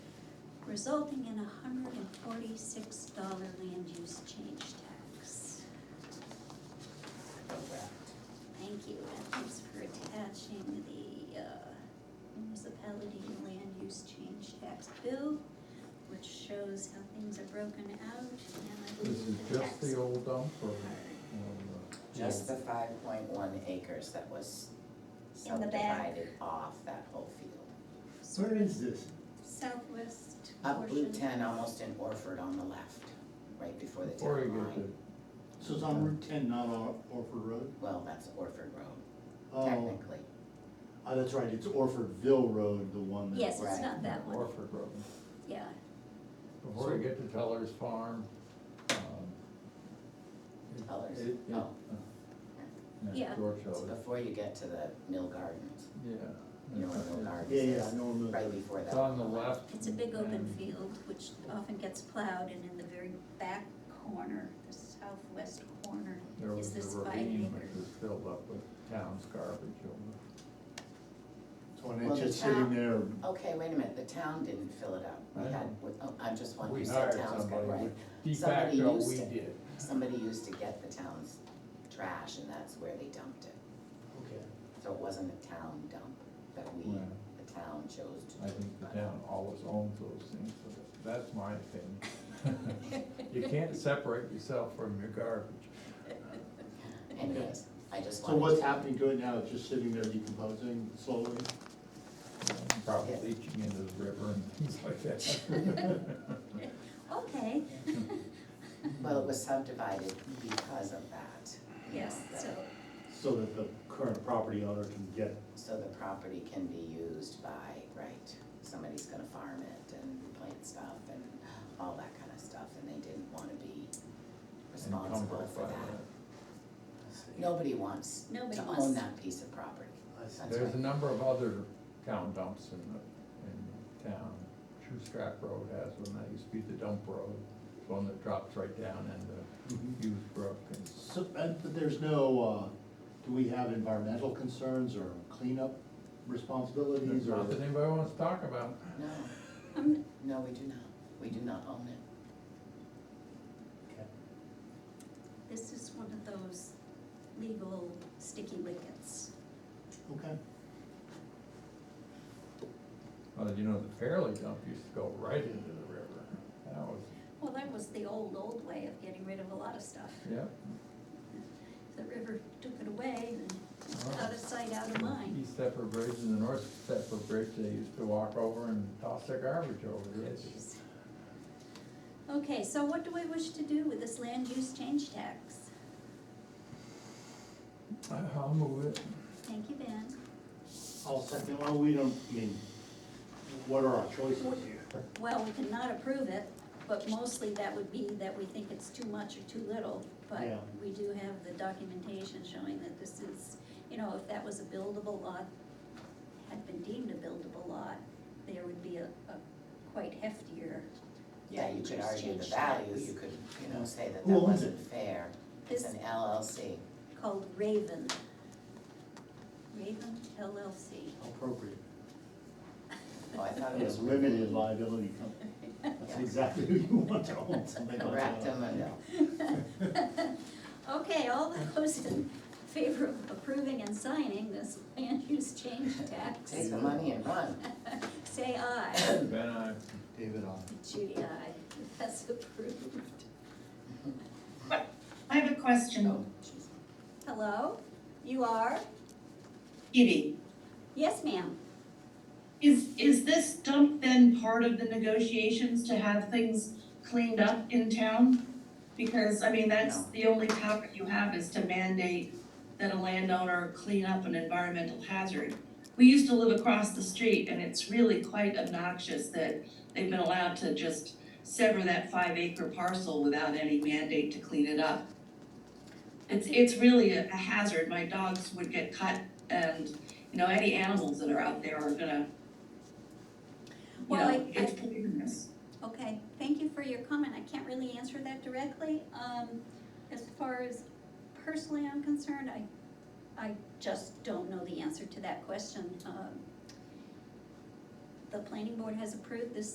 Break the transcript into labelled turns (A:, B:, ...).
A: resulting in a hundred and forty-six dollar land use change tax. Thank you, and thanks for attaching the uh, municipality land use change tax bill, which shows how things are broken out, and I
B: This is
A: believe the
B: just
A: tax.
B: the old dump or? um, uh,
A: card.
B: or the-
C: Just the five point one acres that was
A: In the back.
C: subdivided off that whole field.
D: Where is this?
A: Southwest
C: Up Route
A: portion,
C: ten, almost in Orford on the left, right before the
B: Before you
C: town
B: get
C: line.
B: to,
D: So it's on Route ten, not on Orford Road?
C: Well, that's Orford Road,
D: Oh,
C: technically.
D: oh, that's right, it's Orfordville Road, the one that.
A: yes, it's
C: Right.
A: not that one,
B: Orford Road,
A: yeah,
B: before you get to Teller's Farm, um. it-
C: Teller's?
B: it- uh, it-
C: Oh.
A: Yeah.
B: Yeah, George
C: It's
B: Teller,
C: before you get to the Mill Gardens,
B: yeah.
C: you know where Mill Gardens
D: Yeah,
C: is?
D: yeah, I know where Mill
C: Right
D: Gardens is.
C: before that.
B: It's on the left.
A: it's a big open
B: and-
A: field, which often gets plowed, and in the very back corner, the southwest corner,
B: There
A: is
B: was
A: this
B: a
A: five
B: ravine
A: acre.
B: which was filled up with town's garbage over.
D: So and
C: Well,
D: it's
C: the
D: just
C: town-
D: sitting there,
C: Okay, wait a minute, the town didn't fill it up. We
B: I
C: had, oh, I'm just one
B: We
C: who said
B: hired
C: town's got,
B: somebody,
C: right?
B: we- de
C: Somebody
B: facto,
C: used
B: we
C: it.
B: did.
C: Somebody used to get the town's trash and that's where they dumped it.
D: okay.
C: So it wasn't a town dump that we,
B: Right.
C: the town chose to.
B: I think the town always owns those things, so that- that's my opinion. You can't separate yourself from your garbage.
C: Anyways, I just wanted.
D: So what's
C: to-
D: happening to it now, it's just sitting there decomposing slowly?
B: Probably leaching into the river and things like that.
A: Okay,
C: Well, it was subdivided because of that,
A: yes, so,
D: So that the current property owner can get,
C: so the property can be used by, right, somebody's gonna farm it and plant stuff and all that kind of stuff, and they didn't wanna be responsible
B: Encumbered
C: for
B: by
C: that. Nobody wants
A: Nobody
C: to
A: wants-
C: own that piece of property.
D: I see.
C: That's
B: There's a
C: right.
B: number of other town dumps in the, in town. True Scrap Road has one, that used to be the dump road, It's one that drops right down into Hughes Brook and
D: Mm-hmm. so, and, but there's no, uh, do we have environmental concerns or cleanup
B: there's
D: responsibilities or?
B: not that anybody wants to talk about.
C: No,
A: um,
C: no, we do not, we do not own it.
D: Okay.
A: this is one of those legal sticky wickets.
D: Okay,
B: Well, you know, the Fairleigh dump used to go right into the river. That was,
A: Well, that was the old, old way of getting rid of a lot of stuff.
B: yeah.
A: The river took it away and out of sight, out of mind.
B: East Stepper Bridge and the North Stepper Bridge, they used to walk over and toss their garbage over the edge.
A: Jeez. Okay, so what do we wish to do with this land use change tax?
B: I'll move it.
A: Thank you, Ben.
D: I'll second, well, we don't, I mean, what are our choices here?
A: Well, we cannot approve it, but mostly that would be that we think it's too much or too little.
D: Yeah.
A: But we do have the documentation showing that this is, you know, if that was a buildable lot, had been deemed a buildable lot, there would be a, a quite heftier.
C: Yeah, you could
A: Just
C: argue the
A: change
C: value,
A: tax.
C: you could, you know, say that
D: Who
C: that
D: owns
C: wasn't
D: it?
C: fair, it's
A: This
C: an LLC.
A: called Raven. Raven LLC.
D: Appropriate.
C: Oh, I thought it
D: It's
C: was.
D: limited liability company. That's exactly who you want to own something like that.
C: Rectum and,
A: Okay, all those in favor of approving and signing this land use change tax,
C: take the money and run.
A: say aye.
B: Ben, I,
D: David on.
A: Judy, aye. That's approved.
E: I have a
C: Oh,
E: question.
C: jeez.
A: Hello? You are?
E: Kitty,
A: Yes, ma'am.
E: is, is this dump then part of the negotiations to have things cleaned up in town? Because, I mean, that's
C: No.
E: the only power you have is to mandate that a landowner clean up an environmental hazard. We used to live across the street and it's really quite obnoxious that they've been allowed to just sever that five acre parcel without any mandate to clean it up. It's, it's really a a hazard. My dogs would get cut and you know, any animals that are out there are gonna, you
A: Well,
E: know,
A: I-
E: it's poisonous.
A: Okay, thank you for your comment. I can't really answer that directly. Um, as far as personally I'm concerned, I, I just don't know the answer to that question. Um, The planning board has approved this